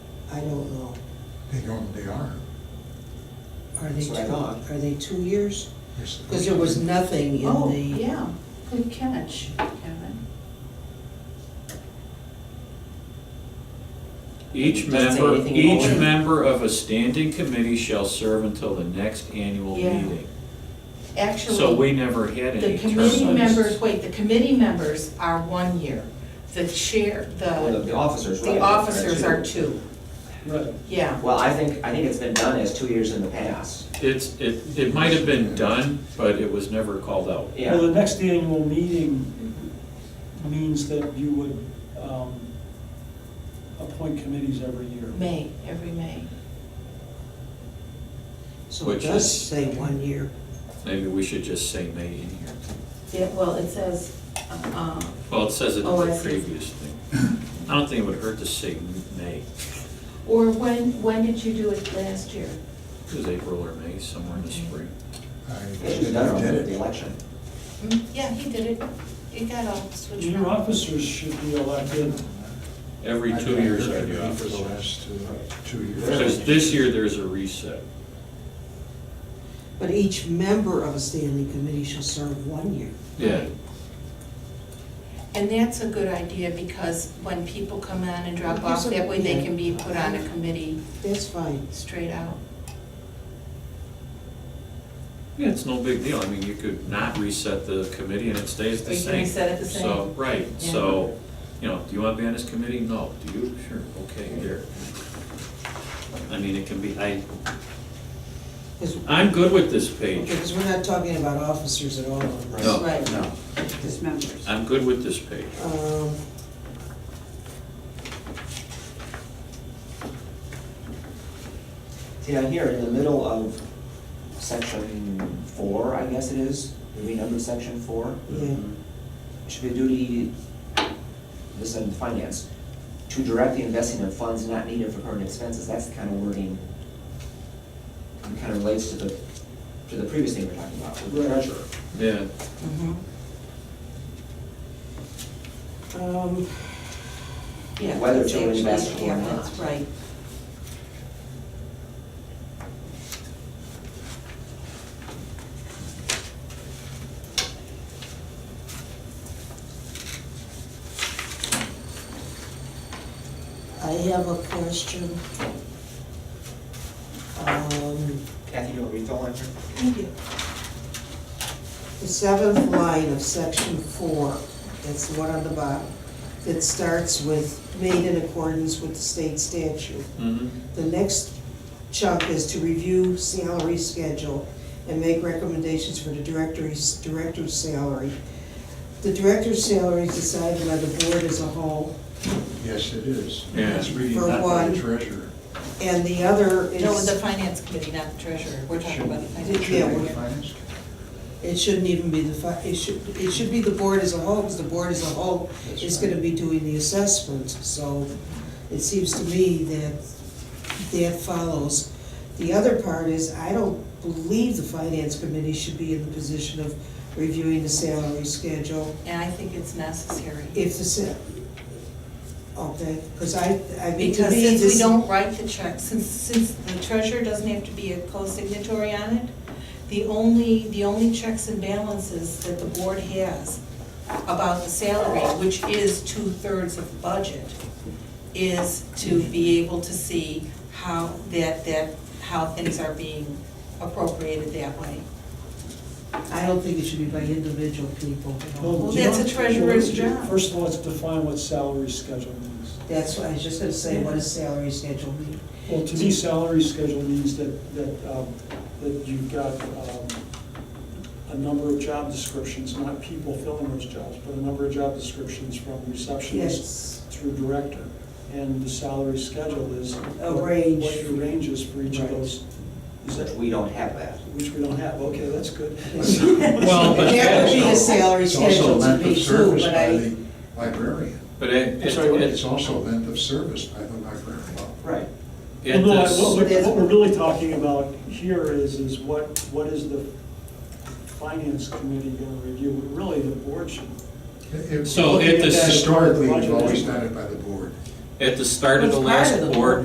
I don't know. They don't, they are. Are they That's two, what I thought. are they two years? Yes, they Because there was are. nothing in the. Oh, yeah, good catch, Kevin. Each Doesn't say member, anything in each order. member of a standing committee shall serve until the next annual Yeah. meeting. So Actually, we never had the any committee term limits. members, wait, the committee members are one year. The chair, Well, The the, the officers, right? the officers are two, Right. yeah. Well, I think, I think it's been done as two years in the past. It's, it, it might have been done, but it was never called out. Yeah. Well, the next annual meeting means that you would um, appoint committees every year. May, every May. So it Which does is- say one year. Maybe we should just say May in here. Yeah, well, it says, uh, Well, it says it in Oh, I the see. previous thing. I don't think it would hurt to say May. or when, when did you do it last year? It was April or May, somewhere in the spring. I It was done did over it. the election. Mm, Yeah, he did it, it got all switched New around. officers should be elected. Every I two can't years look I at do it For the opposite. last uh, two years. Because this year there's a reset. But each member of a standing committee shall serve one year. Yeah, And that's a good idea, because when people come on and drop off, that way they can be put on a committee That's fine. straight out. yeah, it's no big deal. I mean, you could not reset the committee and it stays the Or you same. can reset it the same. So, right, Yeah. so, you know, do you want to be on this committee? No. Do you? Sure, okay, here. I mean, it can be, I, Because, I'm good with this page. we're not talking about officers at all. right? No, Right. no, Just members. I'm good with this page. Um, See, down here, in the middle of section four, I guess it is, did we number section four? yeah, Should be a duty, this is in finance, to direct the investing of funds not needed for current expenses, that's the kind of wording that kind of relates to the, to the previous thing we we're talking about, with the Right. treasurer. Yeah, um, Yeah, Whether that's to actually- invest or yeah, not. That's right. I have a question. Um, Kathy, you want to read the line here? Thank you. The seventh line of section four, that's the one on the bottom, that starts with made in accordance with the state statute. mhm. The next chunk is to review salary schedule and make recommendations for the director's, director's salary. The director's salary is decided by the board as a whole, Yes, it is. Yeah. It's reading For that by one. the treasurer. and the other No, the is, finance committee, not the treasurer, we're talking about the Should- finance. Yeah, Should be we're- finance. it shouldn't even be the, fi- it should, it should be the board as a whole, because the board as a whole That's is right. gonna be doing the assessment, so it seems to me that that follows. The other part is, I don't believe the finance committee should be in the position of reviewing the salary schedule. And I think it's necessary. If the, sa- okay, because I, I mean, to Because me, since we this, don't write the check, since, since the treasurer doesn't have to be a co-signatory on it, the only, the only checks and balances that the board has about the salary, which is two-thirds of the budget, is to be able to see how that, that, how things are being appropriated that way. I don't think it should be by individual people. Well, do you that's know- a treasurer's job. First of all, let's define what salary schedule means. That's what I was just gonna say, what does salary schedule mean? Well, to me, salary schedule means that, that, um, that you've got, um, a number of job descriptions, not people filling those jobs, but a number of job descriptions from receptionist Yes, through director. And the salary schedule is. A what- range. What your range is for each of Right. those, is Which that, we don't have that. which we don't have, okay, that's good. Well, but that would be a that's, salary It's also schedule to length me of too, service but by I, the librarian. but it, It's al- it's, it's also length of service by the librarian. Right. Well, it no, I- what is, we're, what we're really talking about here is, is what, what is the finance committee gonna review? Really, the board should. It- it- So at the- Historically, we've always done it by the board. at the start of the It's part last of the board